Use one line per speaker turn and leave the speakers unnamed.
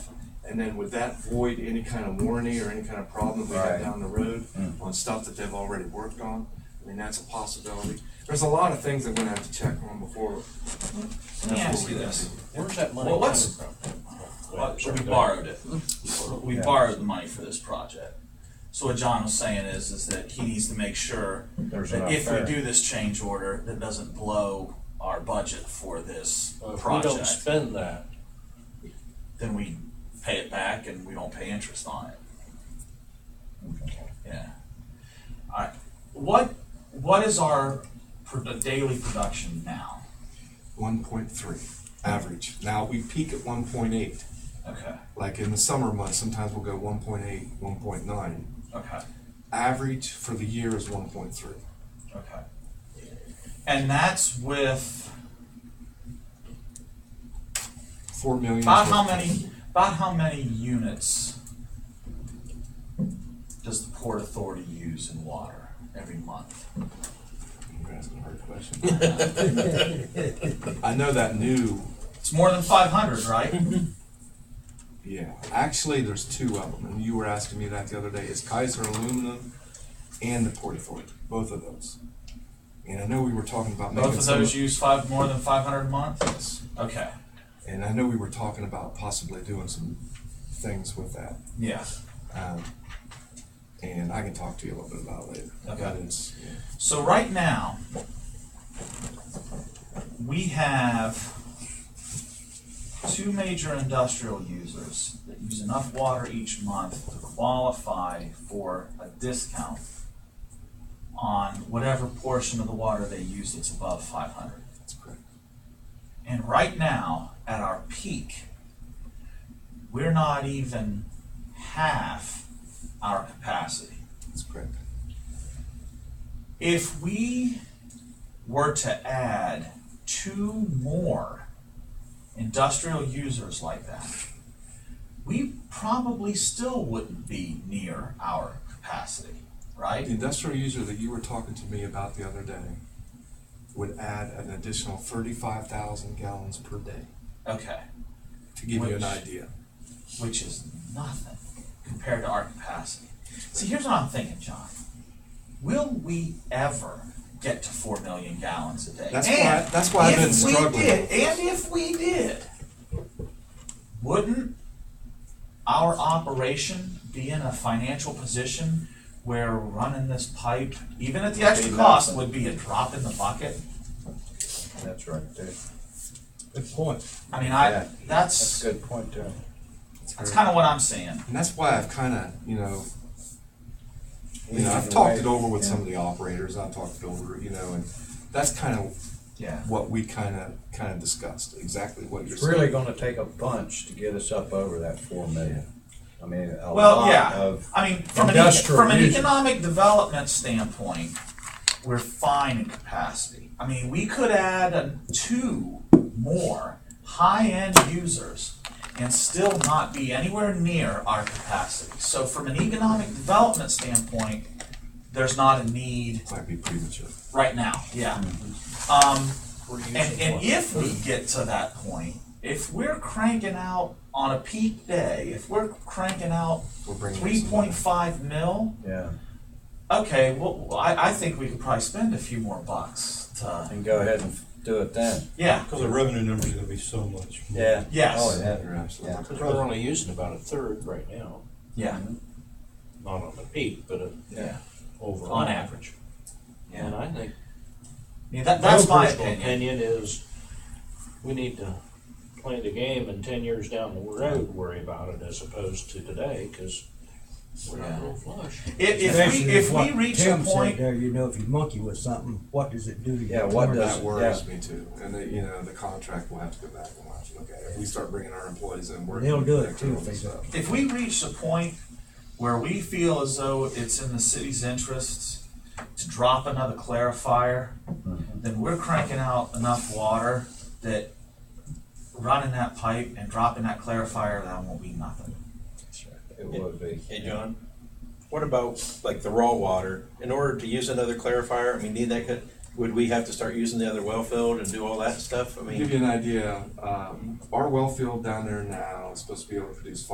And then would that void any kind of warranty or any kind of problem we
Right.
have down the road on stuff that they've already worked on? I mean, that's a possibility. There's a lot of things I'm gonna have to check on before.
Let me ask you this,
Where's that money
Well,
coming
what's-
from?
Well, we borrowed it, we borrowed the money for this project. So what John was saying is, is that he needs to make sure
There's
that
enough
if
there.
we do this change order, that doesn't blow our budget for this
Well, If Uh, we don't
project,
spend that,
then we pay it back and we don't pay interest on it. Yeah. All right, what, what is our pro- uh, daily production now?
One point three, average. Now, we peak at one point eight.
Okay,
Like in the summer months, sometimes we'll go 1.8, 1.9.
okay.
Average for the year is one point three.
Okay. And that's with,
Four million. is
about
what-
how many, about how many units does the Port Authority use in water every month?
You're asking a hard question. I know that new
It's more than five hundred, right?
Yeah, actually, there's two of them, and you were asking me that the other day. It's Kaiser Aluminum and the Port Authority, both of those. And I know we were talking about making
Both of
some-
those use five, more than five hundred a month?
Yes.
Okay,
And I know we were talking about possibly doing some things with that.
yeah.
Um, and I can talk to you a little bit about it later.
Okay.
That is, yeah.
So right now, we have two major industrial users that use enough water each month to qualify for a discount on whatever portion of the water they use that's above five hundred.
that's correct.
And right now, at our peak, we're not even half our capacity
That's correct.
if we were to add two more industrial users like that, we probably still wouldn't be near our capacity,
The
right?
industrial user that you were talking to me about the other day would add an additional 35,000 gallons per day,
Okay,
to give you
Which-
an idea.
which is nothing compared to our capacity. See, here's what I'm thinking, John. Will we ever get to four million gallons a day?
That's
And
why- that's why I've been
if we
struggling.
did- And if we did, wouldn't our operation be in a financial position where running this pipe, even at the extra cost, would be a drop in the bucket?
That's right, there.
Good point.
I mean,
Yeah.
I,
That's
that's,
a good point, too.
that's kinda what I'm saying.
And that's why I've kind of, you know, you know, I've talked it over with some of the operators. I've talked it over, you know, and that's kind of
Yeah.
what we kind of kind of discussed. Exactly what you're
It's
saying.
really gonna take a bunch to get us up over that four million. I mean, a
Well,
lot
yeah,
of,
I mean, from an, e-
industrial
from an
users.
economic development standpoint, we're fine in capacity. I mean, we could add uh, two more high-end users and still not be anywhere near our capacity. So from an economic development standpoint, there's not a need
Might be premature.
right now, yeah.
Hmm.
Um,
We're using
and, and
what?
if we get to that point, if we're cranking out on a peak day, if we're cranking out
We're bringing in
three
some
point
money.
five mil,
yeah,
okay, well, I, I think we could probably spend a few more bucks to,
and go ahead and do it then.
yeah,
Because the revenue number's gonna be so much. more.
Yeah.
Yes.
Oh, yeah.
You're absolutely
Yeah.
right.
Cause we're only using about a third right now,
yeah,
not on the peak, but a-
yeah,
Overall.
on average. Yeah,
and I think.
I mean, that, that's my
personal
opinion,
Opinion is, we need to play the game and ten years down the road worry about it as opposed to today, cause we're not real flush.
if, if we,
Especially
if we
what
reach a
Tim said
point,
There, you know, if you monkey with something, what does it do to you?
Yeah, what does-
That worries me too. And the, you know, the contract will have to go back and watch. Okay, if we start bringing our employees in, we're
They'll do it, too,
all
if they
this
don't.
stuff.
if we reach a point where we feel as though it's in the city's interests to drop another clarifier,
Mm-hmm.
then we're cranking out enough water that running that pipe and dropping that clarifier, that won't be nothing.
It would be.
Hey, John, what about like the raw water? In order to use another clarifier, I mean, need that, could- would we have to start using the other well field and do all that stuff? I mean.
Give you an idea. Um, our well field down there now is supposed to be able to produce